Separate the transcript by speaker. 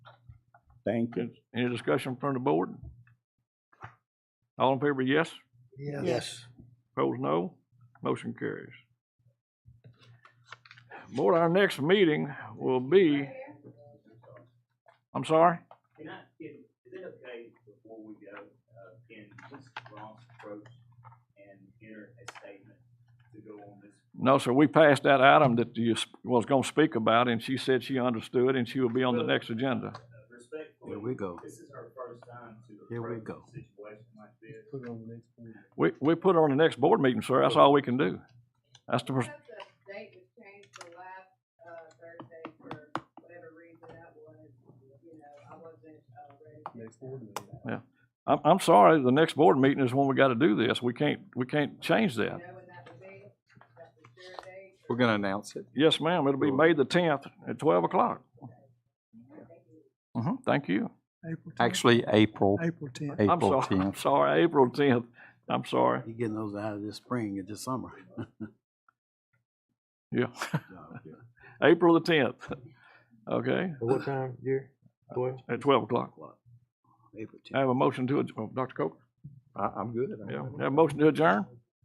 Speaker 1: Thank you.
Speaker 2: Any discussion from the board? All in favor, yes?
Speaker 3: Yes.
Speaker 2: Opposed, no? Motion carries. Board, our next meeting will be, I'm sorry?
Speaker 4: Can I, can, is it okay before we go, uh, can Ms. Ross approach and enter a statement to go on this?
Speaker 2: No, sir, we passed that item that you s- was gonna speak about, and she said she understood, and she will be on the next agenda.
Speaker 4: Uh, Respectfully.
Speaker 3: Here we go.
Speaker 4: This is her first time to
Speaker 3: Here we
Speaker 4: approach
Speaker 3: go.
Speaker 4: a situation like this.
Speaker 2: We, we put her on the next board meeting, sir, that's all we can do. That's the, pers-
Speaker 5: Because the date was changed from last, uh, Thursday for whatever reason that was, you know, I wasn't, uh, ready.
Speaker 2: I'm, I'm sorry, the next board meeting is when we gotta do this, we can't, we can't change
Speaker 5: You
Speaker 2: that.
Speaker 5: know, when that was made, that's the sure date.
Speaker 3: We're gonna announce it.
Speaker 2: Yes, ma'am, it'll be May the tenth at twelve o'clock.
Speaker 3: Mm-hmm.
Speaker 2: hmm thank you.
Speaker 6: April tenth.
Speaker 3: Actually, April,
Speaker 6: April tenth.
Speaker 2: I'm
Speaker 3: April
Speaker 2: sorry, I'm
Speaker 3: tenth.
Speaker 2: sorry, April tenth, I'm sorry,
Speaker 7: You're getting those out of this spring and this summer.
Speaker 2: yeah,
Speaker 7: No, yeah.
Speaker 2: April the tenth, okay,
Speaker 8: What time, Jerry? Twelve?
Speaker 2: at twelve o'clock.
Speaker 7: April
Speaker 2: I have a motion to, adj- oh, Dr. Coker,
Speaker 3: I, I'm good.
Speaker 2: yeah, have a motion to adjourn?